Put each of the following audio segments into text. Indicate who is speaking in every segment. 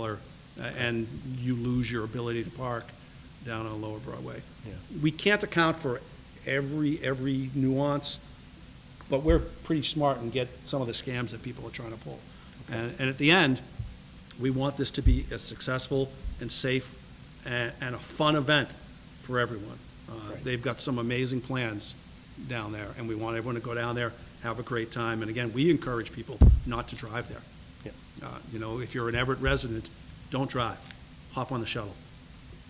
Speaker 1: dollar, uh, and you lose your ability to park down on Lower Broadway.
Speaker 2: Yeah.
Speaker 1: We can't account for every, every nuance, but we're pretty smart and get some of the scams that people are trying to pull. And, and at the end, we want this to be a successful and safe and, and a fun event for everyone. Uh,
Speaker 2: Right.
Speaker 1: They've got some amazing plans down there, and we want everyone to go down there, have a great time. And again, we encourage people not to drive there.
Speaker 2: Yeah.
Speaker 1: Uh, You know, if you're an Everett resident, don't drive, hop on the shuttle,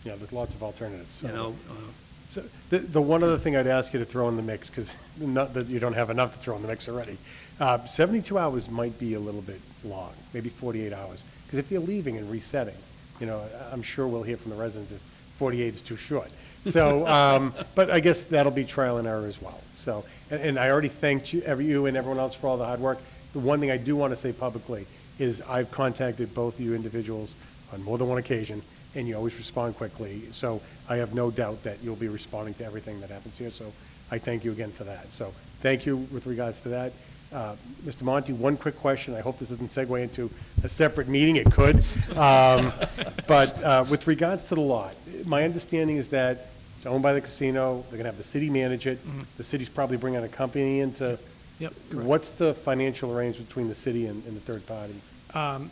Speaker 2: Yeah, there's lots of alternatives.
Speaker 1: you
Speaker 2: so-
Speaker 1: know? uh,
Speaker 2: So, The, the one other thing I'd ask you to throw in the mix, because not that you don't have enough to throw in the mix already, uh, 72 hours might be a little bit long, maybe 48 hours, because if they're leaving and resetting, you know, I- I'm sure we'll hear from the residents if 48 is too short. So, um, but I guess that'll be trial and error as well. So, and, and I already thanked you, every- you and everyone else for all the hard work. The one thing I do want to say publicly is I've contacted both you individuals on more than one occasion, and you always respond quickly. So I have no doubt that you'll be responding to everything that happens here, so I thank you again for that. So thank you with regards to that. Uh, Mr. Monty, one quick question. I hope this doesn't segue into a separate meeting. It could. Um, But uh, with regards to the lot, my understanding is that it's owned by the casino. They're going to have the city manage it. The city's probably bringing a company in to.
Speaker 3: Mm-hmm. Yep, correct.
Speaker 2: What's the financial arrangement between the city and and the third party?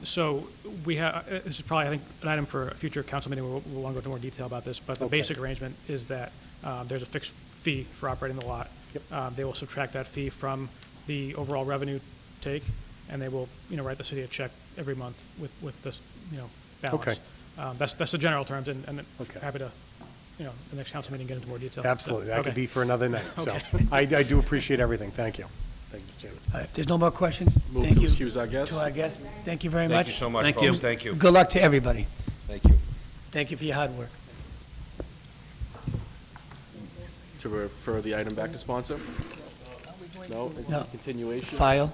Speaker 3: So we have, this is probably, I think, an item for a future council meeting, we'll, we'll want to go into more detail about this, but the
Speaker 2: Okay.
Speaker 3: basic arrangement is that um, there's a fixed fee for operating the lot.
Speaker 2: Yep.
Speaker 3: Um, They will subtract that fee from the overall revenue take, and they will, you know, write the city a check every month with, with this, you know, balance.
Speaker 2: Okay.
Speaker 3: Um, That's, that's the general terms, and, and
Speaker 2: Okay.
Speaker 3: happy to, you know, the next council meeting, get into more detail.
Speaker 2: Absolutely, that could
Speaker 3: Okay.
Speaker 2: be for another night, so.
Speaker 3: Okay.
Speaker 2: I, I do appreciate everything, thank you. Thank you, Mr. Chairman.
Speaker 4: All right, if there's no more questions,
Speaker 5: Move
Speaker 4: thank
Speaker 5: to
Speaker 4: you.
Speaker 5: excuse our guest.
Speaker 4: To our guest, thank you very much.
Speaker 5: Thank you so much,
Speaker 1: Thank you.
Speaker 5: folks. Thank you.
Speaker 4: Good luck to everybody.
Speaker 5: Thank you.
Speaker 4: Thank you for your hard work.
Speaker 5: To refer the item back to sponsor? No, it's
Speaker 4: No.
Speaker 5: a continuation.
Speaker 4: File,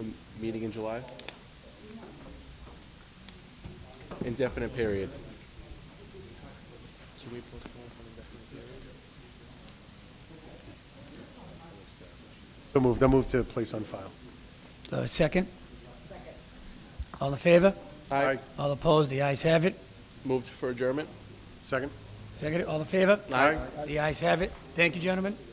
Speaker 5: A Meeting in July? Indefinite period. Can we postpone for indefinite period?
Speaker 2: They'll move, they'll move to place on file.
Speaker 4: Uh, second. All in favor?
Speaker 5: Aye.
Speaker 4: All opposed? The ayes have it.
Speaker 5: Moved for adjournment?
Speaker 2: Second?
Speaker 4: Second, all in favor?
Speaker 5: Aye.
Speaker 4: The ayes have it. Thank you, gentlemen.